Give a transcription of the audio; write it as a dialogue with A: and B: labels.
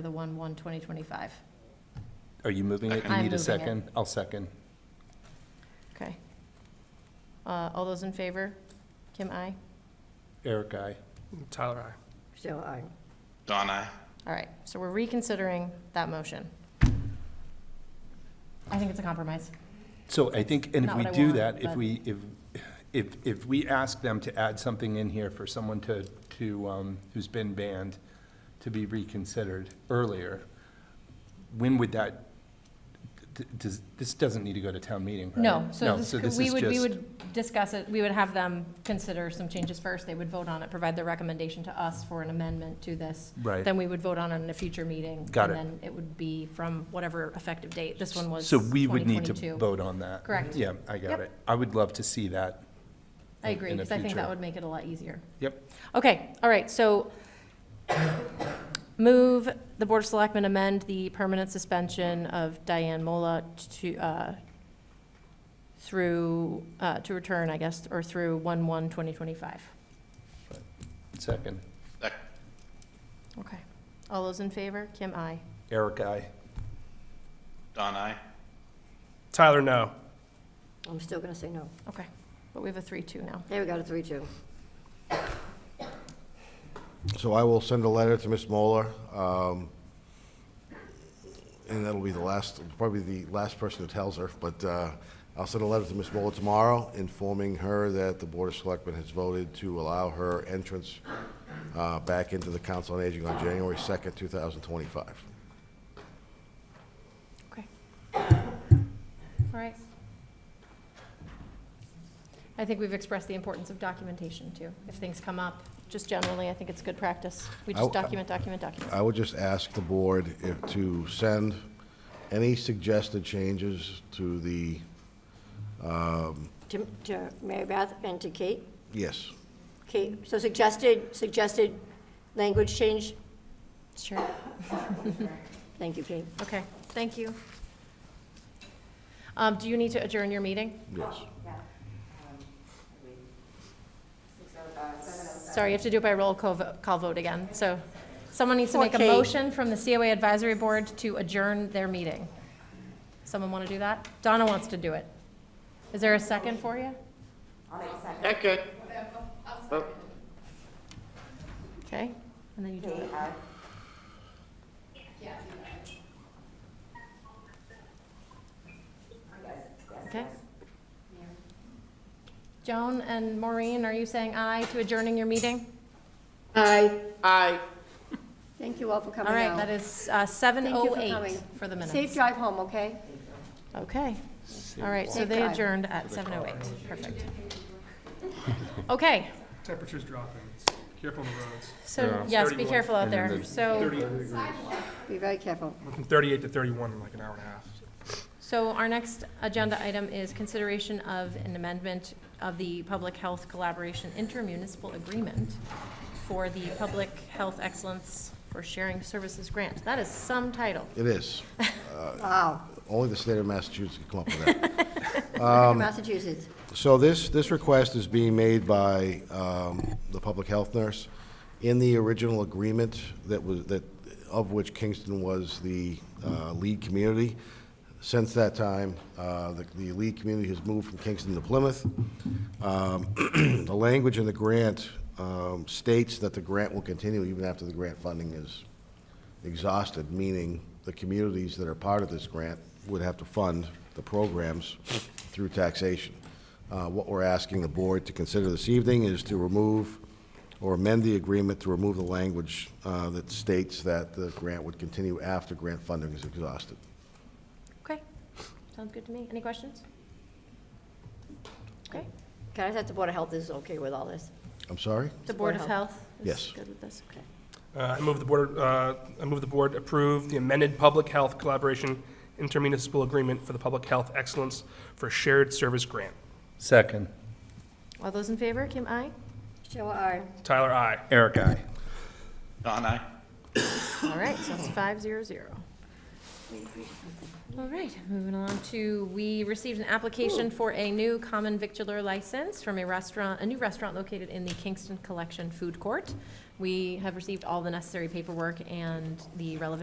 A: for the 1/1/2025.
B: Are you moving it?
A: I'm
B: You need
A: moving
B: a
A: it.
B: second? I'll second.
A: Okay. Uh, All those in favor? Kim, I.
B: Eric, I.
C: Tyler, aye.
D: Still aye.
E: Don, I.
A: All right, so we're reconsidering that motion. I think it's a compromise.
B: So I think, and if
A: Not
B: we
A: what I
B: do
A: want,
B: that, if
A: but-
B: we, if, if, if we ask them to add something in here for someone to, to, um, who's been banned to be reconsidered earlier, when would that, d- does, this doesn't need to go to town meeting, right?
A: No, so this, could- we
B: is
A: would, we
B: just-
A: would discuss it, we would have them consider some changes first, they would vote on it, provide their recommendation to us for an amendment to this.
B: Right.
A: Then we would vote on it in a future meeting.
B: Got it.
A: And then it would be from whatever effective date, this one was
B: So we would need to
A: 2022.
B: vote on that.
A: Correct.
B: Yeah, I got
A: Yep.
B: it. I would love to see that.
A: I
B: in-
A: agree,
B: in the
A: because I think that
B: future.
A: would make it a lot easier.
B: Yep,
A: Okay, all right, so move the Board of Selectmen amend the permanent suspension of Diane Mola to, uh, through, uh, to return, I guess, or through one one twenty twenty-five.
B: second.
E: Sec-
A: Okay. All those in favor? Kim, I.
B: Eric, I.
E: Don, I.
C: Tyler, no.
D: I'm still going to say no.
A: Okay, but we have a three-two now.
D: There we got a three-two.
F: So I will send a letter to Ms. Moeller, um, and that'll be the last, probably the last person who tells her, but uh, I'll send a letter to Ms. Moeller tomorrow informing her that the Board of Selectmen has voted to allow her entrance uh, back into the Council on Aging on January 2nd, 2025.
A: Okay. All right. I think we've expressed the importance of documentation, too. If things come up, just generally, I think it's good practice. We just
F: I'll-
A: document, document, document.
F: I would just ask the board if, to send any suggested changes to the,
D: To, to Mary Beth and to Kate.
F: yes,
D: Kate, so suggested, suggested language change?
A: Sure.
D: Thank you, Kate.
A: Okay, thank you. Um, do you need to adjourn your meeting?
F: yes.
A: Sorry, you have to do it by roll call, vo- call vote again. So someone needs to make a
D: Okay.
A: motion from the COA Advisory Board to adjourn their meeting. Someone want to do that? Donna wants to do it. Is there a second for you?
E: Second.
A: Okay, and then you do it. Okay. Joan and Maureen, are you saying aye to adjourning your meeting?
D: Aye. Aye. Thank you all for coming
A: All right,
D: out.
A: that is uh, 7:08
D: coming.
A: for the
D: Safe
A: minutes.
D: drive home, okay?
A: Okay, all right, so
D: Safe
A: they
D: drive.
A: adjourned at 7:08, perfect. Okay,
C: Temperature's dropping. Careful on the roads.
A: so, yes, be careful out there. So,
D: Be very careful.
C: Went from 38 to 31 in like an hour and a half.
A: so our next agenda item is consideration of an amendment of the Public Health Collaboration Intermunicipal Agreement for the Public Health Excellence for Sharing Services Grant. That is some title.
F: It is. Uh,
D: Wow.
F: Only the state of Massachusetts can come up with that.
D: Massachusetts.
F: So this, this request is being made by um, the public health nurse. In the original agreement that was, that, of which Kingston was the uh, lead community, since that time, uh, the the lead community has moved from Kingston to Plymouth. Um, The language in the grant um, states that the grant will continue even after the grant funding is exhausted, meaning the communities that are part of this grant would have to fund the programs through taxation. Uh, What we're asking the board to consider this evening is to remove or amend the agreement to remove the language uh, that states that the grant would continue after grant funding is exhausted.
A: Okay, sounds good to me. Any questions? Okay.
D: Can I ask if the Board of Health is okay with all this?
F: I'm sorry?
A: The Board of Health is
F: Yes.
A: good with this, okay.
C: Uh, I move the board, uh, I move the board approve the amended Public Health Collaboration Intermunicipal Agreement for the Public Health Excellence for Shared Service Grant.
B: Second.
A: All those in favor, Kim, aye?
D: Still aye.
C: Tyler, aye.
B: Eric, I.
E: Don, I.
A: All right, so it's five zero zero. All right, moving on to, we received an application for a new common victular license from a restaurant, a new restaurant located in the Kingston Collection Food Court. We have received all the necessary paperwork and the relevant